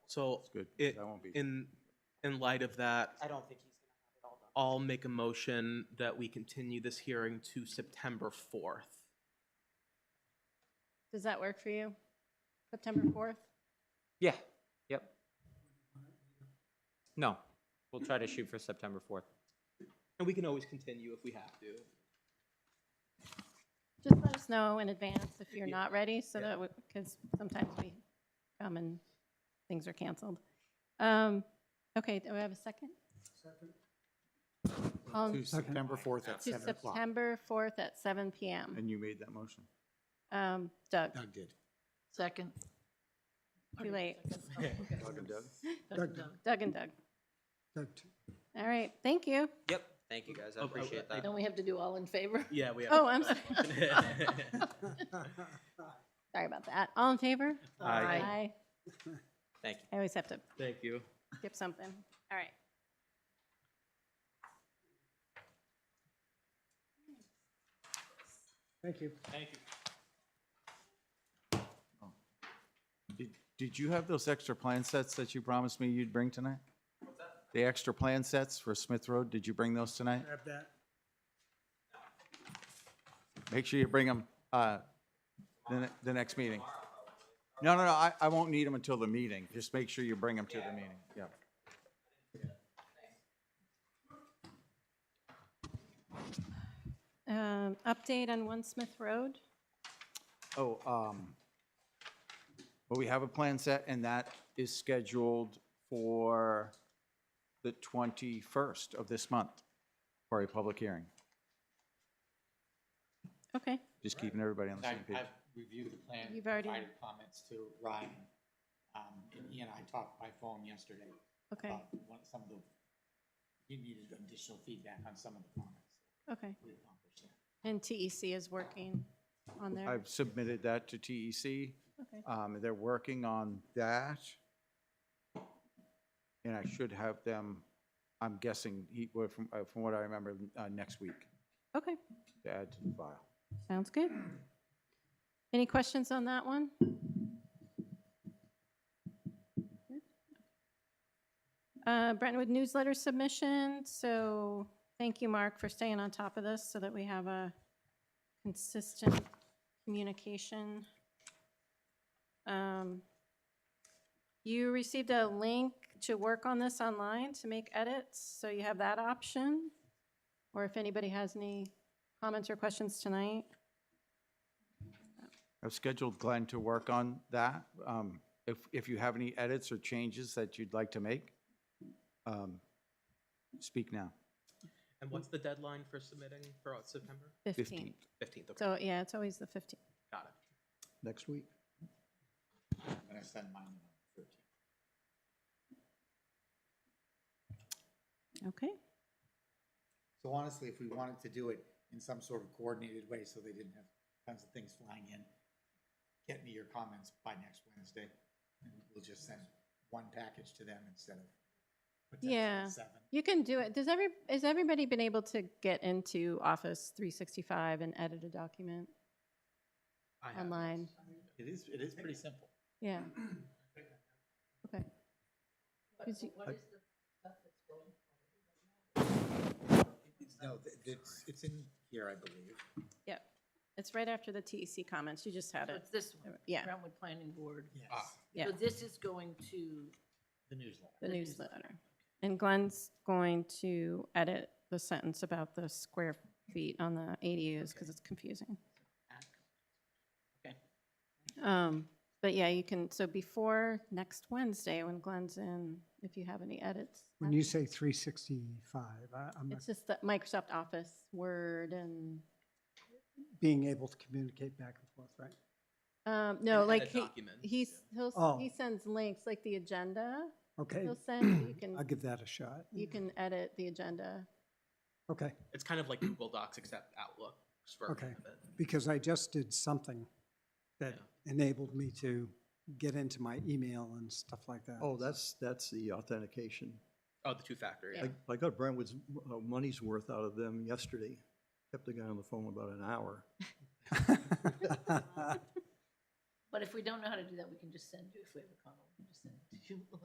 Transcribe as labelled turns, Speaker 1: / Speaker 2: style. Speaker 1: So
Speaker 2: It's good.
Speaker 1: it,
Speaker 2: I won't be.
Speaker 1: in, in light of that,
Speaker 3: I don't think he's gonna have it all done.
Speaker 1: I'll make a motion that we continue this hearing to September 4th.
Speaker 4: Does that work for you? September 4th?
Speaker 5: Yeah, yep. No, we'll try to shoot for September 4th.
Speaker 1: And we can always continue if we have to.
Speaker 4: Just let us know in advance if you're
Speaker 1: Yeah.
Speaker 4: not ready, so
Speaker 1: Yeah.
Speaker 4: that, because sometimes we come and things are canceled. Um, Okay, do we have a second? Um,
Speaker 2: To September 4th at
Speaker 4: To
Speaker 2: 7 o'clock.
Speaker 4: September 4th at seven PM.
Speaker 2: And you made that motion.
Speaker 4: Um, Doug,
Speaker 2: Doug did.
Speaker 6: Second.
Speaker 4: too late.
Speaker 6: Oh,
Speaker 2: Doug and Doug.
Speaker 6: Doug, Doug.
Speaker 4: Doug and Doug. All right, thank you.
Speaker 5: Yep, thank you guys, I
Speaker 1: Oh, oh,
Speaker 5: appreciate
Speaker 1: I-
Speaker 5: that.
Speaker 6: Don't we have to do all in favor?
Speaker 1: Yeah, we have.
Speaker 4: Oh, I'm sorry. Sorry about that. All in favor?
Speaker 1: Aye.
Speaker 5: Thank you.
Speaker 4: I always have to
Speaker 1: Thank you.
Speaker 4: skip something. All right.
Speaker 2: Did- Did you have those extra plan sets that you promised me you'd bring tonight? The extra plan sets for Smith Road, did you bring those tonight?
Speaker 7: Grab that.
Speaker 2: Make sure you bring them, uh, the, ne- the next meeting. No, no, no, I, I won't need them until the meeting. Just make sure you bring them to the meeting, yeah.
Speaker 4: Um, Update on One Smith Road?
Speaker 2: Oh, um, well, we have a plan set and that is scheduled for the twenty-first of this month for a public hearing.
Speaker 4: Okay,
Speaker 2: Just keeping everybody on the same
Speaker 8: I've,
Speaker 2: page.
Speaker 8: I've reviewed the plan,
Speaker 4: You've already-
Speaker 8: provided comments to Ryan. Um, and he and I talked by phone yesterday
Speaker 4: okay,
Speaker 8: about one, some of the, he needed additional feedback on some of the comments.
Speaker 4: okay.
Speaker 8: We accomplished that.
Speaker 4: And TEC is working on there?
Speaker 2: I've submitted that to TEC.
Speaker 4: Okay.
Speaker 2: Um, they're working on that. And I should have them, I'm guessing, he, well, from, uh, from what I remember, uh, next week
Speaker 4: Okay,
Speaker 2: to add to the file.
Speaker 4: sounds good. Any questions on that one? Uh, Brentwood newsletter submission, so thank you, Mark, for staying on top of this so that we have a consistent communication. Um, You received a link to work on this online to make edits, so you have that option. Or if anybody has any comments or questions tonight.
Speaker 2: I've scheduled Glenn to work on that. Um, If, if you have any edits or changes that you'd like to make, um, speak now.
Speaker 1: And what's the deadline for submitting for uh, September?
Speaker 4: 15th.
Speaker 1: 15th, okay,
Speaker 4: So, yeah, it's always the 15th.
Speaker 1: got it.
Speaker 2: Next week.
Speaker 8: I'm gonna send mine on the 13th.
Speaker 4: Okay.
Speaker 8: So honestly, if we wanted to do it in some sort of coordinated way, so they didn't have tons of things flying in, get me your comments by next Wednesday, and we'll just send one package to them instead of
Speaker 4: Yeah.
Speaker 8: potentially seven.
Speaker 4: You can do it. Does every, has everybody been able to get into Office 365 and edit a document
Speaker 1: I have it.
Speaker 4: online?
Speaker 8: It is, it is pretty simple.
Speaker 4: Yeah. Okay. 'Cause you-
Speaker 8: No, th- it's, it's in here, I believe.
Speaker 4: Yep. It's right after the TEC comments. You just had
Speaker 6: So
Speaker 4: it.
Speaker 6: It's this one,
Speaker 4: Yeah,
Speaker 6: Brentwood Planning Board.
Speaker 8: Yes,
Speaker 4: Yeah.
Speaker 6: So this is going to,
Speaker 8: the newsletter.
Speaker 4: the
Speaker 6: the
Speaker 4: newsletter. And Glenn's going to edit the sentence about the square feet on the ADUs because it's confusing.
Speaker 6: okay.
Speaker 4: Um, But yeah, you can, so before next Wednesday, when Glenn's in, if you have any edits.
Speaker 7: When you say 365, I- I'm not
Speaker 4: It's just that Microsoft Office, Word, and,
Speaker 7: being able to communicate back and forth, right?
Speaker 4: um, no,
Speaker 1: And
Speaker 4: like,
Speaker 1: edit
Speaker 4: he,
Speaker 1: documents,
Speaker 4: he's, he'll,
Speaker 7: Oh.
Speaker 4: s- he sends links, like the agenda,
Speaker 7: Okay,
Speaker 4: he'll send, you
Speaker 7: I'll
Speaker 4: can,
Speaker 7: give that a shot.
Speaker 4: you can edit the agenda.
Speaker 7: Okay,
Speaker 1: It's kind of like Google Docs except Outlook. for
Speaker 7: Okay.
Speaker 1: it.
Speaker 7: because I just did something that enabled me to get into my email and stuff like that.
Speaker 9: Oh, that's, that's the authentication.
Speaker 1: Oh, the two-factor, yeah.
Speaker 9: I, I got Brentwood's uh, money's worth out of them yesterday. Kept the guy on the phone about an hour.
Speaker 6: But if we don't know how to do that, we can just send you, if we have a comment, we can just send it to you.